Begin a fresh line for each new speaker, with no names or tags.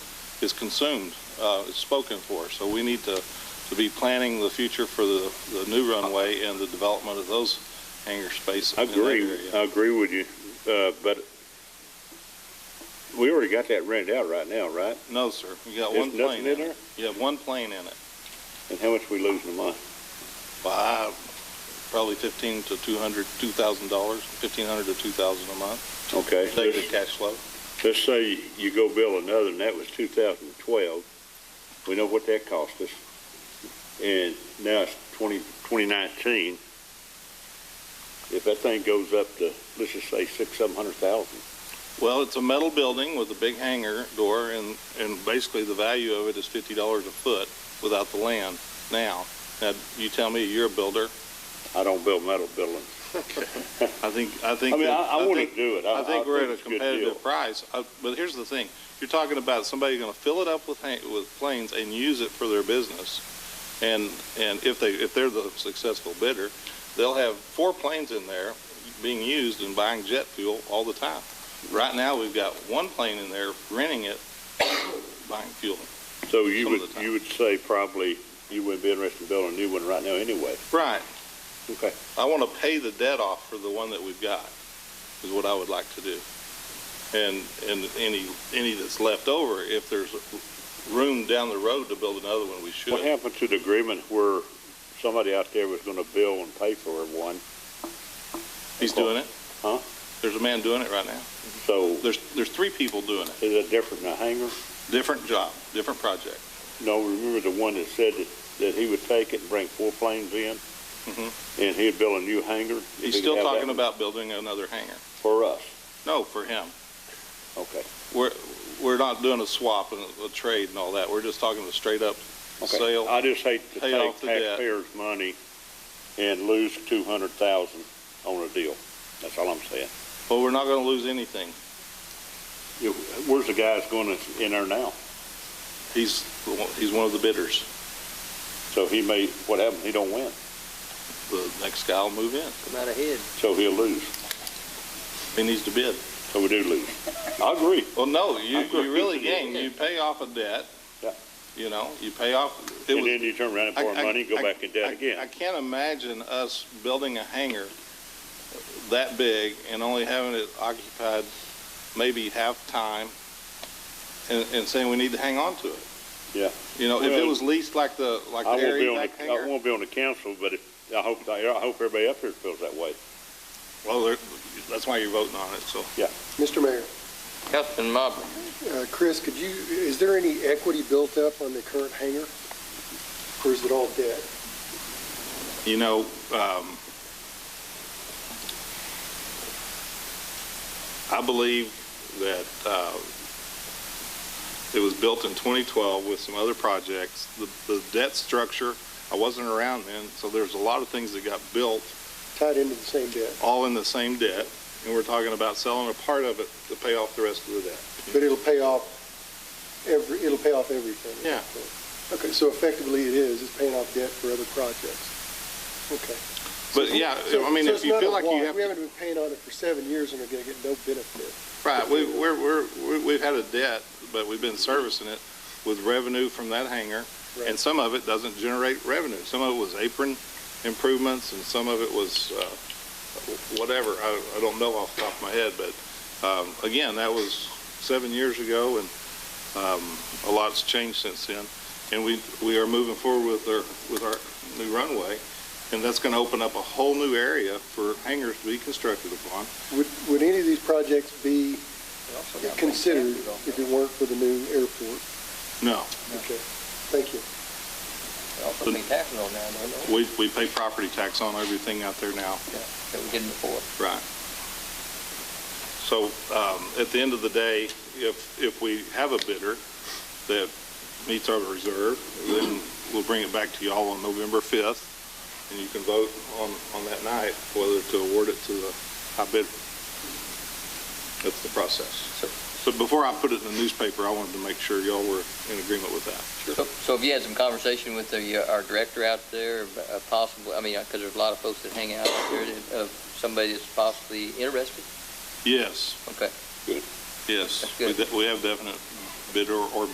is consumed, uh, is spoken for. So we need to, to be planning the future for the, the new runway and the development of those hangar spaces.
I
in that
agree,
area.
I agree with you, uh, but we already got that rented out right now, right?
No, sir. You got
There's
one plane
nothing in
in it.
there?
You have one plane in it.
And how much we losing a month?
By probably fifteen to two hundred, two thousand dollars, fifteen hundred to two thousand a month,
Okay.
daily cash flow.
Let's say you go build another, and that was 2012. We know what that cost us. And now it's 20, 2019. If that thing goes up to, let's just say six, seven hundred thousand.
Well, it's a metal building with a big hangar door, and, and basically the value of it is fifty dollars a foot without the land now. Now, you tell me, you're a builder.
I don't build metal buildings.
I think, I think.
I mean,
that-
I, I want
think-
to do it.
I think we're at a
it's good deal.
competitive price, I- but here's the thing, you're talking about somebody gonna fill it up with, hang- with planes and use it for their business. And, and if they, if they're the successful bidder, they'll have four planes in there being used and buying jet fuel all the time. Right now, we've got one plane in there renting it, buying fuel.
So you
some of
would,
the time.
you would say probably you wouldn't be interested in building a new one right now anyway.
Right,
Okay.
I wanna pay the debt off for the one that we've got, is what I would like to do. And, and any, any that's left over, if there's room down the road to build another one, we
What
should.
happened to the agreement where somebody out there was going to bill and pay for one?
He's doing it.
Huh?
There's a man doing it right now.
So
There's, there's three people doing it,
Is that different than a hangar?
different job, different project.
No, remember the one that said that, that he would take it and bring four planes in?
Mhm.
And he'd build a new hangar?
He's
He
still
could have that
talking
one
about building another hangar.
For us,
No, for him.
okay.
We're, we're not doing a swap and a trade and all that. We're just talking a straight up
Okay. Uh,
sale.
I just hate to
pay
take
off the debt.
taxpayers' money and lose two hundred thousand on a deal. That's all I'm saying.
But we're not gonna lose anything.
You- Where's the guys going that's in there now?
He's, the one- he's one of the bidders.
So he may, what happened, he don't win,
The next guy will move in.
come out ahead.
so he'll lose,
He needs to bid.
so we do lose. I agree.
Well, no, you,
I agree.
you really gain. You pay off a debt.
Yeah.
You know, you pay off. it
And
was-
then you turn around and borrow
I- I-
money, go
I-
back in
I-
debt again.
I can't imagine us building a hangar that big and only having it occupied maybe half time and, and saying we need to hang on to it.
Yeah.
You know, if it
Well,
was leased like the, like the
I won't be
area
on
back
the, I
hangar.
won't be on the council, but if, I hope, I hope everybody up here feels that way.
Well, there- that's why you're voting on it, so.
Mr. Mayor,
Councilman Mobley.
uh, Chris, could you, is there any equity built up on the current hangar? Or is it all debt?
You know, um, I believe that, uh, it was built in 2012 with some other projects. The, the debt structure, I wasn't around then, so there's a lot of things that got built
Tied into the same debt,
all in the same debt. And we're talking about selling a part of it to pay off the rest of the debt.
but it'll pay off every, it'll pay off everything.
Yeah.
Okay, so effectively it is, it's paying off debt for other projects. Okay.
But yeah,
So-
I mean,
so
if
it's
you
not
feel
a
like you
wash.
have
We
to
haven't been paying on it for seven years and are gonna get no benefit.
Right, we, we're, we're, we- we've had a debt, but we've been servicing it with revenue from that hangar, and
Right.
some of it doesn't generate revenue. Some of it was apron improvements, and some of it was, uh, whatever, I, I don't know off the top of my head, but, um, again, that was seven years ago, and, um, a lot's changed since then. And we, we are moving forward with our, with our new runway, and that's gonna open up a whole new area for hangars to be constructed upon.
Would, would any of these projects be considered if it weren't for the new airport?
No,
Okay, thank you.
They Also pay taxes on that, don't they?
We, we pay property tax on everything out there now,
That we didn't before.
right. So, um, at the end of the day, if, if we have a bidder that meets our reserve, then we'll bring it back to y'all on November 5th, and you can vote on, on that night whether to award it to the high bidder. That's the process.
So,
So before I put it in the newspaper, I wanted to make sure y'all were in agreement with that.
so- so have you had some conversation with the, uh, our director out there, uh, possibly, I mean, because there's a lot of folks that hang out out there, that- of somebody that's possibly interested?
Yes,
Okay.
yes.
That's
We
good.
de- we have definite bidder or